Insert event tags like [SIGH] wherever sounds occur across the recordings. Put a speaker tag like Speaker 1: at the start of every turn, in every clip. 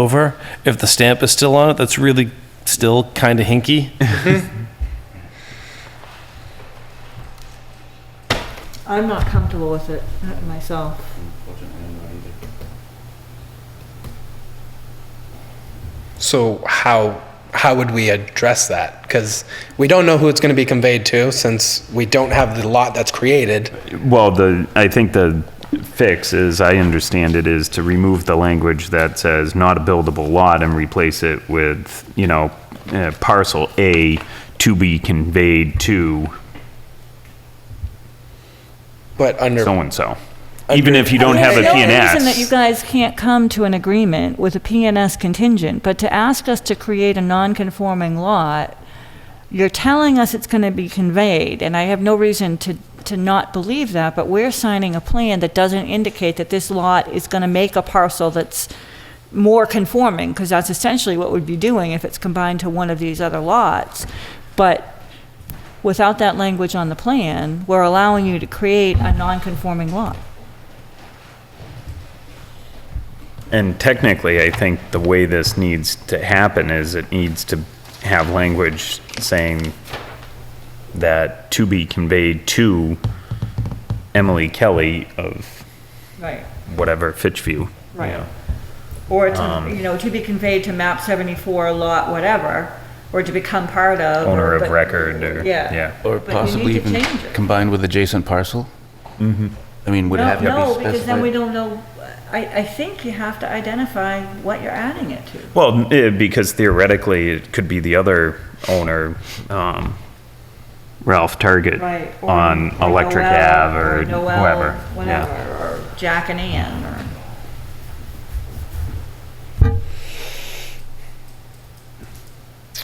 Speaker 1: over. If the stamp is still on it, that's really still kind of hinky.
Speaker 2: I'm not comfortable with it uh, myself.
Speaker 3: So how how would we address that? Because we don't know who it's going to be conveyed to, since we don't have the lot that's created.
Speaker 4: Well, the, I think the fix, as I understand it, is to remove the language that says not a buildable lot and replace it with, you know, uh, parcel A to be conveyed to
Speaker 3: But under
Speaker 4: so-and-so. Even if you don't have a
Speaker 5: There's No reason that you
Speaker 4: PNS.
Speaker 5: guys can't come to an agreement with a PNS contingent, but to ask us to create a non-conforming lot, you're telling us it's going to be conveyed, and I have no reason to, to not believe that, but we're signing a plan that doesn't indicate that this lot is going to make a parcel that's more conforming, because that's essentially what we'd be doing if it's combined to one of these other lots. But without that language on the plan, we're allowing you to create a non-conforming lot.
Speaker 4: And technically, I think the way this needs to happen is it needs to have language saying that to be conveyed to Emily Kelly of
Speaker 5: Right.
Speaker 4: whatever, Fitchview.
Speaker 5: Right. Or to,
Speaker 4: Um,
Speaker 5: you know, to be conveyed to map 74, lot whatever, or to become part of. or-
Speaker 4: owner of
Speaker 5: but-
Speaker 4: record or, yeah.
Speaker 5: Yeah.
Speaker 6: Or
Speaker 5: But you need
Speaker 6: possibly
Speaker 5: to
Speaker 6: even
Speaker 5: change it.
Speaker 6: combined with adjacent parcel? Mm-hmm. I mean, would it
Speaker 5: No,
Speaker 6: have to be
Speaker 5: no,
Speaker 6: specified?
Speaker 5: because then we don't know, I, I think you have to identify what you're adding it to.
Speaker 4: Well, eh, because theoretically, it could be the other owner, um, Ralph Target.
Speaker 5: Right. or-
Speaker 4: On
Speaker 5: or
Speaker 4: Electric
Speaker 5: Noel,
Speaker 4: Ave or
Speaker 5: Noel,
Speaker 4: whoever,
Speaker 5: Whatever,
Speaker 4: yeah.
Speaker 5: or Jack and Ann, or.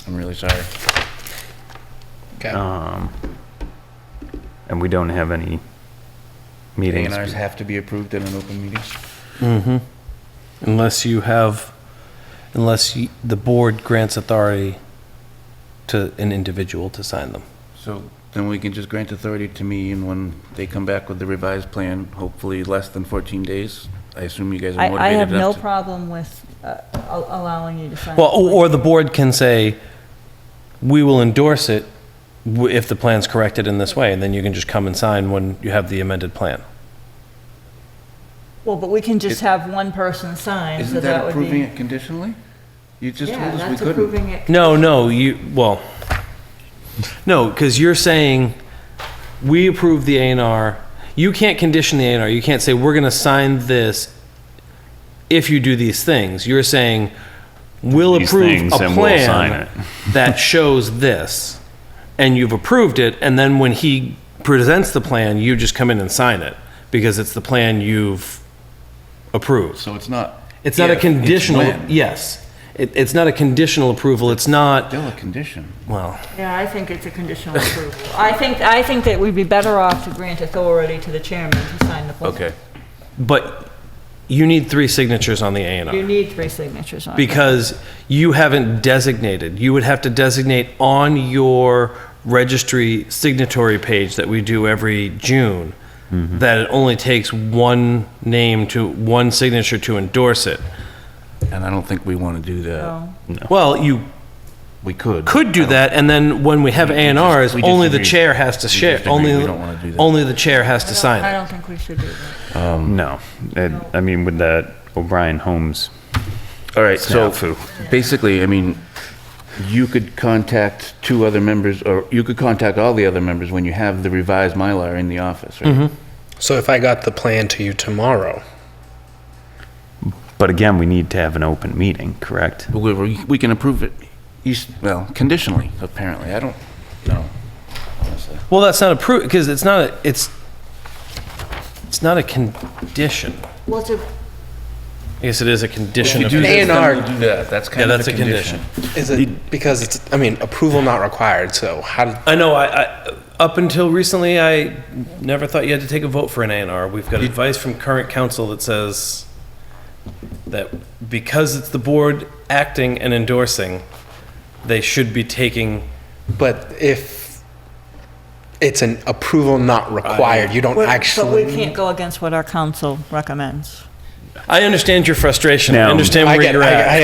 Speaker 6: I'm really sorry.
Speaker 3: okay.
Speaker 4: Um, and we don't have any meetings.
Speaker 6: A&Rs have to be approved at an open meeting?
Speaker 1: Unless you have, unless you- the board grants authority to an individual to sign them.
Speaker 6: So then we can just grant authority to me, and when they come back with the revised plan, hopefully less than 14 days, I assume you guys are motivated
Speaker 5: I, I have no
Speaker 6: enough to-
Speaker 5: problem with uh, al- allowing you to sign.
Speaker 1: Well,
Speaker 6: oh.
Speaker 1: or or the board can say, we will endorse it w- if the plan's corrected in this way, and then you can just come and sign when you have the amended plan.
Speaker 5: Well, but we can just have one person sign, so
Speaker 6: Isn't
Speaker 5: that
Speaker 6: that
Speaker 5: would be.
Speaker 6: approving it conditionally? You just told
Speaker 2: Yeah,
Speaker 6: us we
Speaker 2: that's
Speaker 6: couldn't.
Speaker 2: approving it.
Speaker 1: No, no, you, well, no, because you're saying, we approve the A and R, you can't condition the A and R, you can't say, we're gonna sign this if you do these things, you're saying, we'll
Speaker 4: These
Speaker 1: approve
Speaker 4: things
Speaker 1: a
Speaker 4: and we'll sign
Speaker 1: plan
Speaker 4: it. [LAUGHS]
Speaker 1: that shows this, and you've approved it, and then when he presents the plan, you just come in and sign it, because it's the plan you've approved.
Speaker 6: So it's not.
Speaker 1: It's not a
Speaker 6: if, it's
Speaker 1: conditional,
Speaker 6: when.
Speaker 1: yes. It, it's not a conditional approval. It's not,
Speaker 6: Still a condition.
Speaker 1: well,
Speaker 2: Yeah, I think it's a conditional approval.
Speaker 5: I think, I think that we'd be better off to grant authority to the chairman to sign the plan.
Speaker 1: but you need three signatures on the A and
Speaker 5: You
Speaker 1: R
Speaker 5: need three signatures on it.
Speaker 1: because you haven't designated. You would have to designate on your registry signatory page that we do every June
Speaker 6: Mm-hmm.
Speaker 1: that it only takes one name to one signature to endorse it.
Speaker 6: And I don't think we want to do that.
Speaker 1: Well, you
Speaker 6: We could.
Speaker 1: could do that, and then when we have A and Rs,
Speaker 6: we just
Speaker 1: only the
Speaker 6: agreed-
Speaker 1: chair has to
Speaker 6: we
Speaker 1: share.
Speaker 6: just agreed
Speaker 1: Only
Speaker 6: we don't wanna do that.
Speaker 1: only the chair has to sign it.
Speaker 5: I don't think we should do that.
Speaker 4: No, It- I mean, with that O'Brien Holmes
Speaker 6: All right, so
Speaker 4: snafu.
Speaker 6: basically, I mean, you could contact two other members, or you could contact all the other members when you have the revised Mylar in the office, right?
Speaker 3: so if I got the plan to you tomorrow,
Speaker 4: But again, we need to have an open meeting, correct?
Speaker 6: But we- We can approve it, you s- well, conditionally, apparently. I don't know, honestly.
Speaker 1: Well, that's not approved, because it's not, a it's, it's not a condition.
Speaker 2: Well, it's a,
Speaker 1: I guess it is a condition
Speaker 6: If
Speaker 1: of,
Speaker 6: you do
Speaker 1: yeah,
Speaker 6: this, then
Speaker 3: A&R.
Speaker 6: we'll do that. That's kind of
Speaker 1: that's
Speaker 6: a condition.
Speaker 3: is it because it's? I mean, approval not required. So how? Did,
Speaker 1: I know, I, I, up until recently, I never thought you had to take a vote for an A and R. We've got advice from current council that says that because it's the board acting and endorsing, they should be taking,
Speaker 3: but if it's an approval not required, you don't actually.
Speaker 5: But we can't go against what our council recommends.
Speaker 1: I understand your frustration, I
Speaker 4: Now-
Speaker 1: understand
Speaker 3: I
Speaker 1: where
Speaker 3: get.
Speaker 1: you're
Speaker 3: I,
Speaker 1: at.
Speaker 3: I